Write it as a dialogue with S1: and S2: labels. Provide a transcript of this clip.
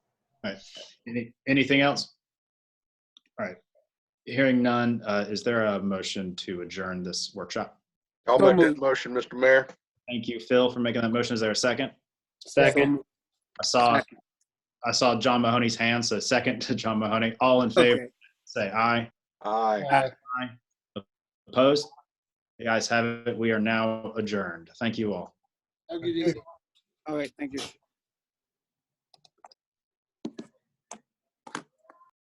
S1: All right. Any, anything else? All right. Hearing none, uh, is there a motion to adjourn this workshop?
S2: I'll
S3: So
S2: make that
S3: moved.
S2: motion, Mr. Mayor.
S1: Thank you, Phil, for making that motion. Is there a second?
S3: Second.
S1: I saw, I saw John Mahoney's hand, so second to John Mahoney. All in favor, say aye.
S2: Aye.
S3: Aye.
S1: Opposed? The ayes have it. We are now adjourned. Thank you all.
S3: Have a good evening. All right, thank you.